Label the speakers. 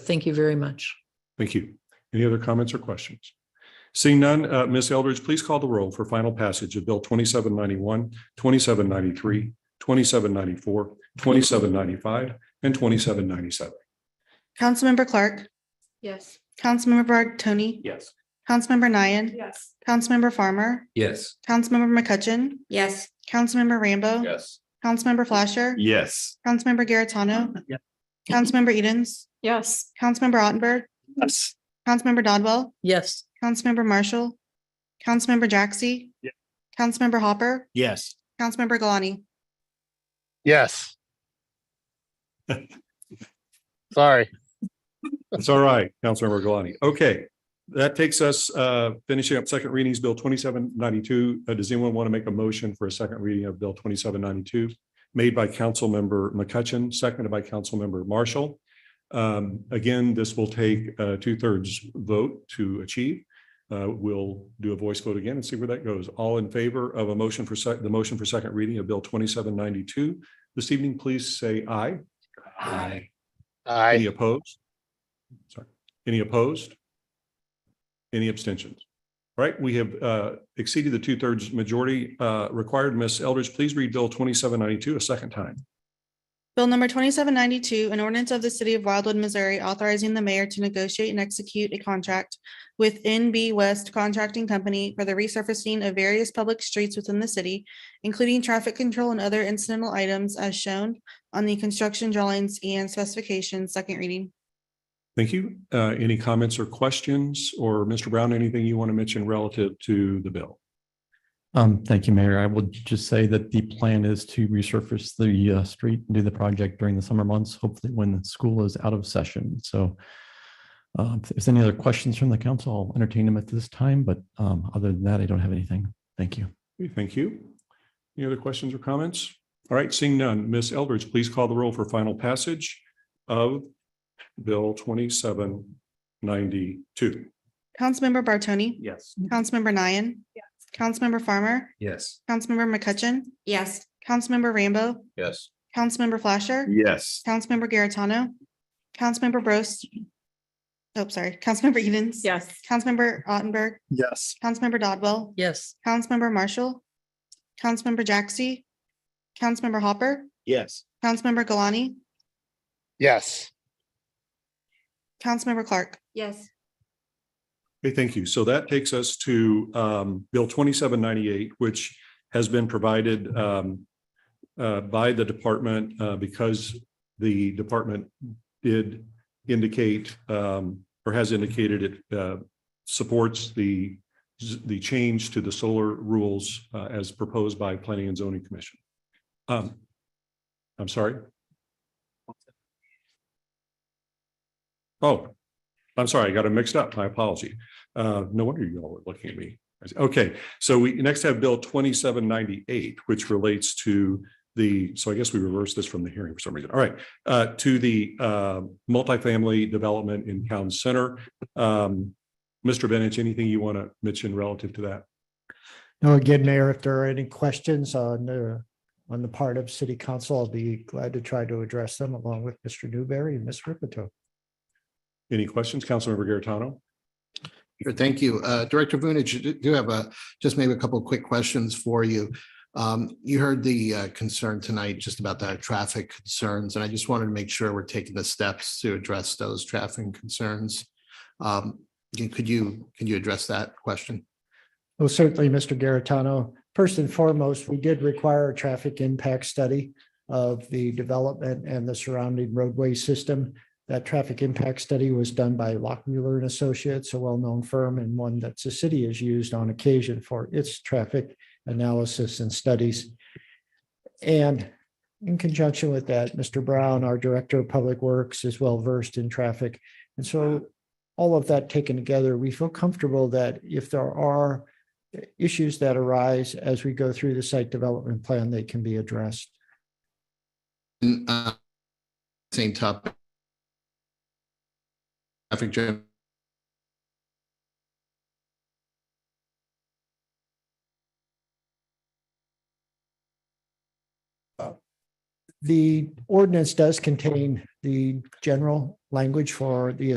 Speaker 1: Thank you very much.
Speaker 2: Thank you. Any other comments or questions? Seeing none, uh, Ms. Eldridge, please call the roll for final passage of Bill 2791, 2793, 2794, 2795, and 2797.
Speaker 3: Councilmember Clark,
Speaker 1: Yes.
Speaker 3: Councilmember Bragg Tony,
Speaker 2: Yes.
Speaker 3: Councilmember Nian,
Speaker 1: Yes.
Speaker 3: Councilmember Farmer,
Speaker 4: Yes.
Speaker 3: Councilmember McCutcheon,
Speaker 1: Yes.
Speaker 3: Councilmember Rambo.
Speaker 4: Yes.
Speaker 3: Councilmember Flasher,
Speaker 4: Yes.
Speaker 3: Councilmember Garitano. Councilmember Edens,
Speaker 1: Yes.
Speaker 3: Councilmember Ottenberg,
Speaker 4: Yes.
Speaker 3: Councilmember Dodwell,
Speaker 1: Yes.
Speaker 3: Councilmember Marshall, Councilmember Jaxi.
Speaker 4: Yeah.
Speaker 3: Councilmember Hopper,
Speaker 4: Yes.
Speaker 3: Councilmember Galani.
Speaker 5: Yes. Sorry.
Speaker 2: That's all right, Councilmember Galani. Okay, that takes us uh, finishing up second readings, Bill 2792. Uh, Does anyone want to make a motion for a second reading of Bill 2792? Made by Councilmember McCutcheon, seconded by Councilmember Marshall. Um, Again, this will take a two-thirds vote to achieve. Uh, We'll do a voice vote again and see where that goes. All in favor of a motion for sec, the motion for second reading of Bill 2792 this evening, please say aye. Aye. Any
Speaker 5: I,
Speaker 2: opposed? Sorry, any opposed? Any abstentions? All right, we have uh, exceeded the two-thirds majority uh, required. Ms. Eldridge, please read Bill twenty-seven ninety-two a second time.
Speaker 3: Bill number twenty-seven ninety-two, an ordinance of the city of Wildwood, Missouri, authorizing the mayor to negotiate and execute a contract with NB West Contracting Company for the resurfacing of various public streets within the city, including traffic control and other incidental items as shown on the construction drawings and specifications, second reading.
Speaker 2: Thank you. Uh, Any comments or questions? Or Mr. Brown, anything you want to mention relative to the bill?
Speaker 6: Um, thank you, Mayor. I would just say that the plan is to resurface the uh, street and do the project during the summer months, hopefully when the school is out of session. So uh, if there's any other questions from the council, I'll entertain them at this time, but um, other than that, I don't have anything. Thank you.
Speaker 2: Okay, Thank you. Any other questions or comments? All right, seeing none, Ms. Eldridge, please call the roll for final passage of Bill twenty-seven ninety-two.
Speaker 3: Councilmember Bartoni,
Speaker 4: Yes.
Speaker 3: Councilmember Nian. Councilmember Farmer,
Speaker 4: Yes.
Speaker 3: Councilmember McCutcheon. Yes. Councilmember Rambo,
Speaker 4: Yes.
Speaker 3: Councilmember Flasher.
Speaker 4: Yes.
Speaker 3: Councilmember Garitano. Councilmember Bros. Oh, sorry, Councilmember Edens.
Speaker 1: Yes.
Speaker 3: Councilmember Ottenberg,
Speaker 5: yes.
Speaker 3: Councilmember Dodwell,
Speaker 1: Yes.
Speaker 3: Councilmember Marshall, Councilmember Jaxi, Councilmember Hopper,
Speaker 4: Yes.
Speaker 3: Councilmember Galani,
Speaker 5: Yes.
Speaker 3: Councilmember Clark.
Speaker 1: Yes.
Speaker 2: Okay, thank you. So that takes us to um, Bill twenty-seven ninety-eight, which has been provided um, uh, by the department uh, because the department did indicate um, or has indicated it uh, supports the the change to the solar rules uh, as proposed by Planning and Zoning Commission. Um, I'm sorry. Oh, I'm sorry, I got it mixed up. My apology. Uh, no wonder you all were looking at me. Okay, so we next have Bill twenty-seven ninety-eight, which relates to the, so I guess we reversed this from the hearing for some reason. All right, uh, to the uh, multifamily development in town center. Um, Mr. Bennett, anything you want to mention relative to that?
Speaker 7: No, again, Mayor, if there are any questions on the, on the part of city council, I'll be glad to try to address them along with Mr. Newberry and Ms. Ripito.
Speaker 2: Any questions, Councilmember Garitano?
Speaker 8: Sure, thank you. Uh, Director Vunich, you do- do have a, just maybe a couple of quick questions for you. Um, You heard the uh, concern tonight just about the traffic concerns, and I just wanted to make sure we're taking the steps to address those traffic concerns. Um, you- Could you, can you address that question?
Speaker 7: Well, certainly, Mr. Garitano, first and foremost, we did require a traffic impact study of the development and the surrounding roadway system. That traffic impact study was done by Lockmuller and Associates, a well-known firm and one that the city has used on occasion for its traffic analysis and studies. And in conjunction with that, Mr. Brown, our Director of Public Works, is well versed in traffic. And so all of that taken together, we feel comfortable that if there are issues that arise as we go through the site development plan, they can be addressed.
Speaker 8: And, uh, Same topic. Traffic jam.
Speaker 7: the ordinance does contain the general language for the